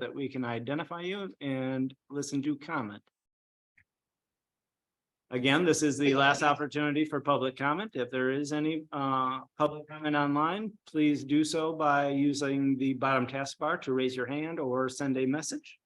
that we can identify you and listen to comment. Again, this is the last opportunity for public comment. If there is any uh public comment online, please do so by using the bottom taskbar to raise your hand or send a message.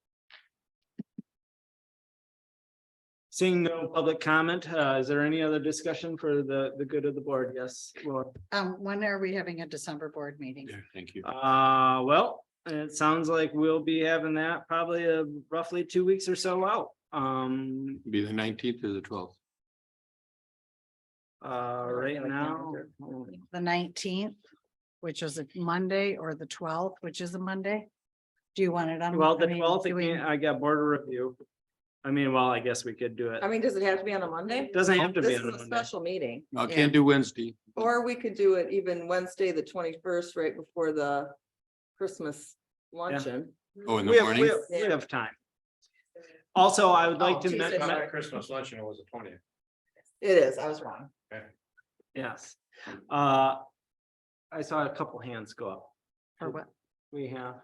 Seeing no public comment, uh, is there any other discussion for the the good of the board? Yes, Laura? Um, when are we having a December board meeting? Yeah, thank you. Uh, well, it sounds like we'll be having that probably uh, roughly two weeks or so out. Um, Be the nineteenth or the twelfth. uh, right now. The nineteenth, which is a Monday, or the twelfth, which is a Monday? Do you want it on? Well, I the mean, twelfth, do we- I got board review. I mean, well, I guess we could do it. I mean, does it have to be on a Monday? Doesn't have to be This on is a a Monday. special meeting. I Yeah. can't do Wednesday. Or we could do it even Wednesday, the twenty-first, right before the Christmas luncheon. Oh, in We the have, we morning. have, we have time. Also, I would like Oh, to, Tuesday, men- sorry. men- Our Christmas luncheon was the twentieth. It is, I was wrong. yes, uh, I saw a couple hands go up. For what? We have,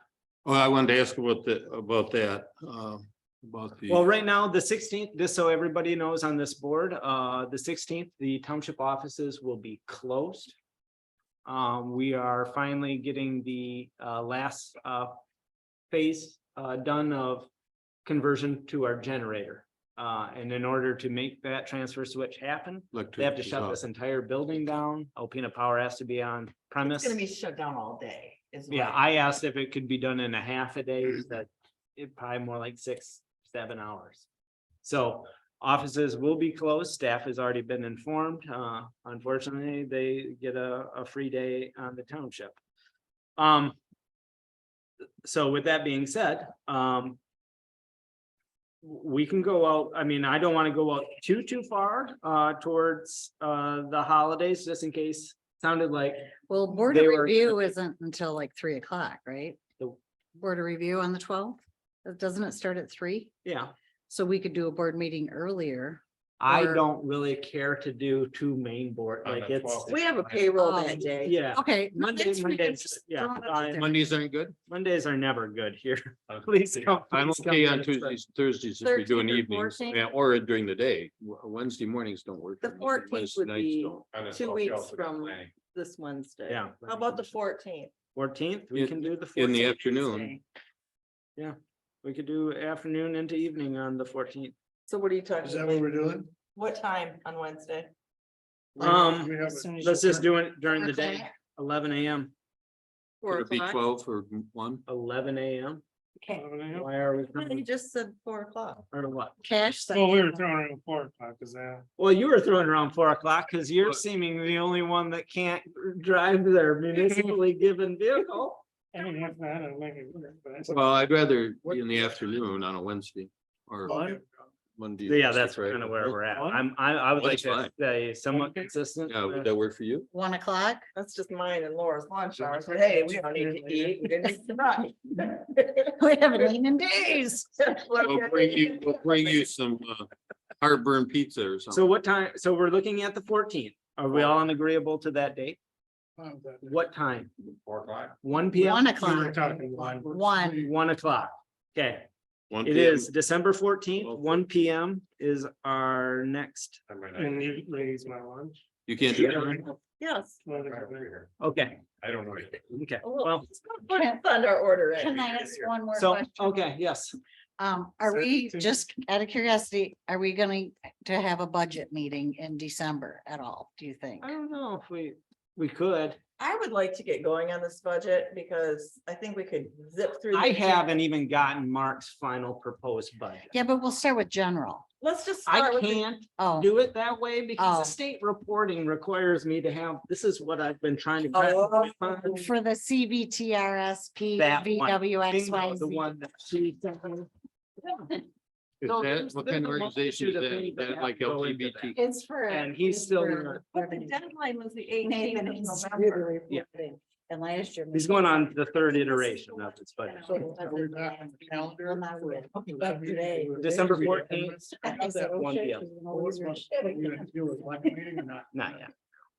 Well, Oh, I wanted to ask about the, about that, um, about Well, the, right now, the sixteenth, just so everybody knows on this board, uh, the sixteenth, the township offices will be closed. Um, we are finally getting the uh last uh phase uh done of conversion to our generator. Uh, and in order to make that transfer switch happen, like. they have to shut this entire building down. Alpena Power has to be on premise. shut down all day. Yeah, I asked if it could be done in a half a day, that it probably more like six, seven hours. So offices will be closed. Staff has already been informed. Uh, unfortunately, they get a, a free day on the township. Um. So with that being said, um. We can go out, I mean, I don't want to go out too, too far, uh, towards, uh, the holidays, just in case. Sounded like Well, board They of were- review isn't until like three o'clock, right? The- Board of review on the twelfth? Doesn't it start at three? Yeah, So we could do a board meeting earlier. I Or- don't really care to do two main board, On like the it's, 12th. We have a payroll Um, that day. yeah, Okay. Monday- next week, Mondays, just yeah, throw it out fine. there. Mondays aren't good. Mondays are never good here. Please come. I'm please come okay on get us, but- Tuesdays, Thursdays if we do an 13th or evening, 14th? yeah, or during the day. W- Wednesday mornings don't work. The for me, 14th Wednesday would nights be- don't. Two weeks from- This Wednesday. Yeah. How about the fourteenth? Fourteenth, we can do the In the fourteenth. afternoon, We could do afternoon into evening on the fourteenth. So what are you Is talking that what about? we're doing? What time on Wednesday? We have- Um, we have As soon as Let's you just can. do it during the day, Okay. eleven AM, could it be twelve or one? eleven AM. Okay. a- Why are we, You coming- just said four o'clock. or what? Cash. Well, we were section. throwing around four o'clock, is that? Well, you were throwing around four o'clock because you're What? seeming the only one that can't drive their municipally given vehicle. I mean, if not, I'll make it work, but that's- Well, I'd rather What- be in the afternoon on a Wednesday or One? Monday. Yeah, Wednesday, that's Friday. kind of where we're at. One? I'm, I, I would One like is to fine. stay somewhat Okay. consistent. Yeah, with- would that work for you? One o'clock? That's just mine and Laura's lunch hour. So hey, we don't need to eat. We didn't eat tonight. We haven't eaten in days. We'll bring you, we'll bring you some uh, heartburn pizza or So something. what time, so we're looking at the fourteenth. Are we all agreeable to that date? Fine with that. What time? Four o'clock. One P One M? We were o'clock. talking one. One. One o'clock. Okay, One it PM. is December fourteenth, Twelve. one P M is our next, I might not- And you raise my lunch. You can't do it. Yes. Let I it don't go. know. okay, I don't know. okay, well, Well, it's on our order. in. Can I ask one more so, question? okay, yes. Um, are Sir, we, to- just out of curiosity, are we going to have a budget meeting in December at all, do you think? Oh. I don't know if we, we could. I would like to get going on this budget because I think we could zip through. I the- haven't even gotten Mark's final proposed budget. Yeah, but we'll start with general. Let's just. start I with the- can't Oh, do it that way because Oh. the state reporting requires me to have, this is what I've been trying to. Oh. grab my- for the CVTRSP, That one. Bingo, The VWXYZ. one that she. sent me. Is So that, there's- what there's kind a of organization multitude is of that? things Is that that have like to go into LGBT? It's for. And he's it's still for not- But the revenue. deadline was the Nathan eighteenth of is November. really Yeah. reporting, And last year. He's going on the third iteration of this budget. So are we back on the calendar for a public Back today. meeting? December 14th. I have that one. one deal. Well, what's my- what we gonna do with one meeting or not? Not yet.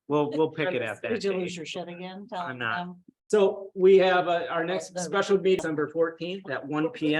We'll, we'll pick it up that Did you lose day. your shit again? Um, Tell I'm not. them. So we have, uh, our next special meeting, December fourteenth at one P M.